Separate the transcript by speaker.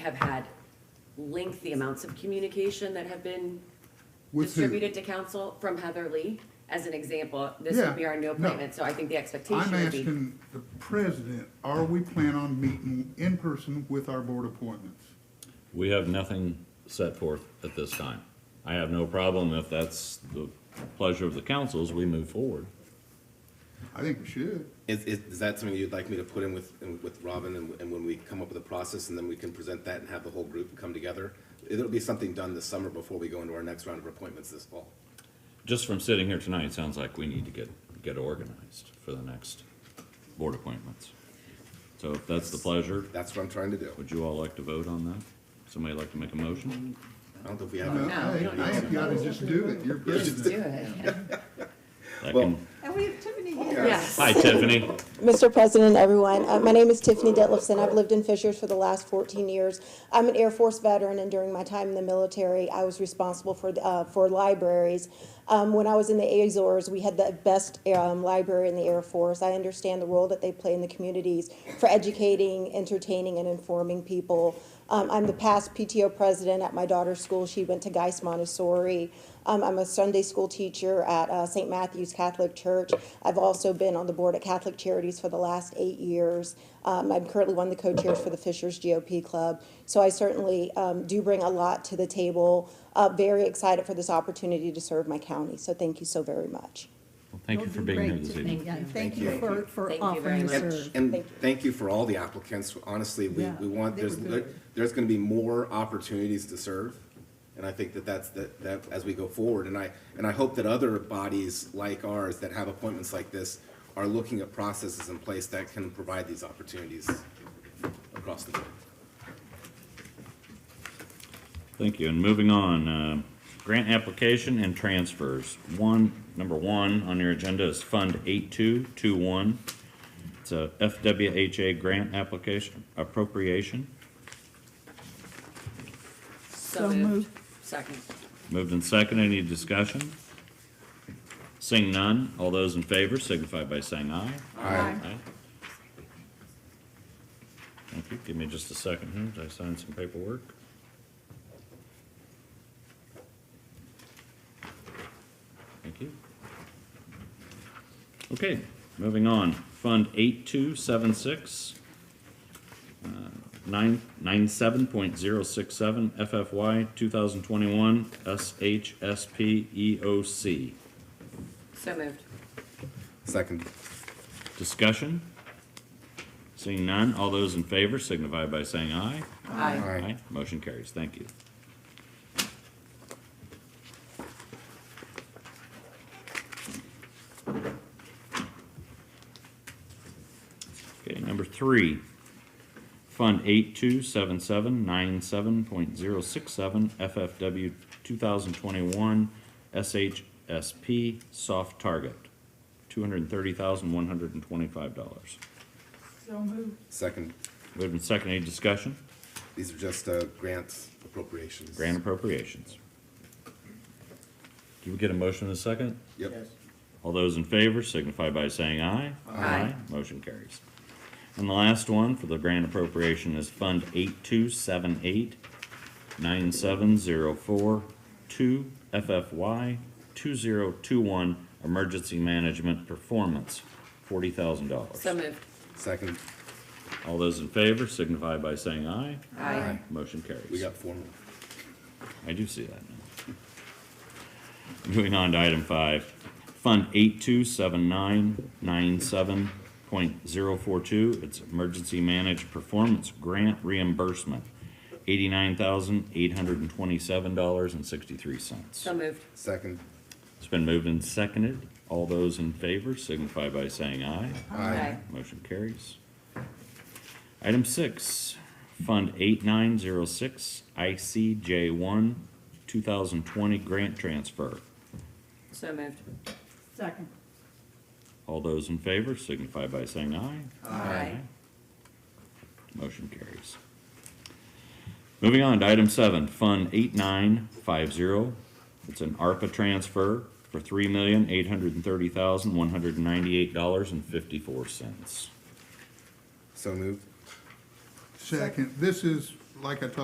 Speaker 1: have had lengthy amounts of communication that have been
Speaker 2: With who?
Speaker 1: distributed to council from Heather Lee. As an example, this would be
Speaker 2: Yeah,
Speaker 1: our new
Speaker 2: no.
Speaker 1: appointment, so I think the expectation
Speaker 2: I'm
Speaker 1: would be.
Speaker 2: asking the president, are we planning on meeting in person with our board appointments?
Speaker 3: We have nothing set forth at this time. I have no problem if that's the pleasure of the council as we move forward.
Speaker 2: I think we should.
Speaker 4: Is, is, is that something you'd like me to put in with, in- with Robin and, and when we come up with a process and then we can present that and have the whole group come together? It'll be something done this summer before we go into our next round of appointments this fall.
Speaker 3: Just from sitting here tonight, it sounds like we need to get, get organized for the next board appointments. So if that's the pleasure,
Speaker 4: That's what I'm trying to do.
Speaker 3: would you all like to vote on that? Somebody like to make a motion?
Speaker 4: I don't know if we have.
Speaker 2: No,
Speaker 4: any-
Speaker 1: No, we don't
Speaker 2: hey, I
Speaker 1: need
Speaker 2: think you ought to just do it, you're president.
Speaker 3: That
Speaker 4: Well-
Speaker 3: can-
Speaker 5: And we have Tiffany here.
Speaker 1: Yes.
Speaker 3: Hi Tiffany,
Speaker 6: Mr. President, everyone, uh, my name is Tiffany Detlefson. I've lived in Fishers for the last 14 years. I'm an Air Force veteran, and during my time in the military, I was responsible for, uh, for libraries. Um, When I was in the Azores, we had the best um, library in the Air Force. I understand the role that they play in the communities for educating, entertaining, and informing people. Um, I'm the past PTO president at my daughter's school. She went to Geis Montessori. Um, I'm a Sunday school teacher at uh, St. Matthew's Catholic Church. I've also been on the board at Catholic Charities for the last eight years. Um, I'm currently one of the co-chairs for the Fishers GOP Club. So I certainly um, do bring a lot to the table. Uh, very excited for this opportunity to serve my county. So thank you so very much.
Speaker 3: Well, thank you for being here this evening.
Speaker 5: Yeah, Thank you for, for
Speaker 1: Thank you very
Speaker 5: offering to
Speaker 1: much.
Speaker 5: serve.
Speaker 4: And thank you for all the applicants. Honestly, we,
Speaker 5: Yeah,
Speaker 4: we want,
Speaker 5: they were
Speaker 4: there's,
Speaker 5: good.
Speaker 4: there's gonna be more opportunities to serve. And I think that that's, that, that, as we go forward, and I, and I hope that other bodies like ours that have appointments like this are looking at processes in place that can provide these opportunities across the board.
Speaker 3: Thank you, and moving on, uh, grant application and transfers. One, number one on your agenda is Fund 8221. It's a FWHA grant application appropriation,
Speaker 1: So
Speaker 5: So
Speaker 1: moved.
Speaker 5: moved.
Speaker 1: Second.
Speaker 3: moved and seconded. any discussion? Seeing none, all those in favor signify by saying aye. Aye. Thank you, give me just a second here, Did I sign some paperwork. Thank you. Okay, moving on, Fund eight-two-seven-six, uh, nine, nine-seven point zero-six-seven, FFY two thousand twenty-one, SHSP EOC.
Speaker 1: So moved.
Speaker 4: Second.
Speaker 3: Discussion? Seeing none, all those in favor signify by saying aye.
Speaker 1: Aye.
Speaker 3: Motion carries, thank you. Okay, number three, Fund eight-two-seven-seven-nine-seven point zero-six-seven, FFW two thousand twenty-one, SHSP soft target, two hundred and thirty thousand, one hundred and twenty-five dollars.
Speaker 5: So moved.
Speaker 4: Second.
Speaker 3: Moved and seconded, any discussion?
Speaker 4: These are just, uh, grants appropriations.
Speaker 3: Grant appropriations. Do we get a motion in a second?
Speaker 4: Yep.
Speaker 3: All those in favor signify by saying aye. Motion carries. And the last one for the grant appropriation is Fund eight-two-seven-eight, nine-seven-zero-four-two, FFY, two-zero-two-one, Emergency Management Performance, forty thousand dollars.
Speaker 1: So moved.
Speaker 4: Second.
Speaker 3: All those in favor signify by saying aye.
Speaker 1: Aye.
Speaker 3: Motion carries.
Speaker 4: We got four more.
Speaker 3: I do see that now. Moving on to item five, Fund eight-two-seven-nine-nine-seven point zero-four-two, it's Emergency Managed Performance Grant Reimbursement, eighty-nine thousand, eight hundred and twenty-seven dollars and sixty-three cents.
Speaker 1: So moved.
Speaker 4: Second.
Speaker 3: It's been moved and seconded. All those in favor signify by saying aye.
Speaker 1: Aye.
Speaker 3: Motion carries. Item six, Fund eight-nine-zero-six, ICJ one, two thousand twenty grant transfer.
Speaker 1: So moved.
Speaker 5: Second.
Speaker 3: All those in favor signify by saying aye.
Speaker 1: Aye.
Speaker 3: Motion carries. Moving on to item seven, Fund eight-nine-five-zero. It's an ARPA transfer for three million, eight hundred and thirty thousand, one hundred and ninety-eight dollars and fifty-four cents.
Speaker 4: So moved.
Speaker 2: Second, this is like I talked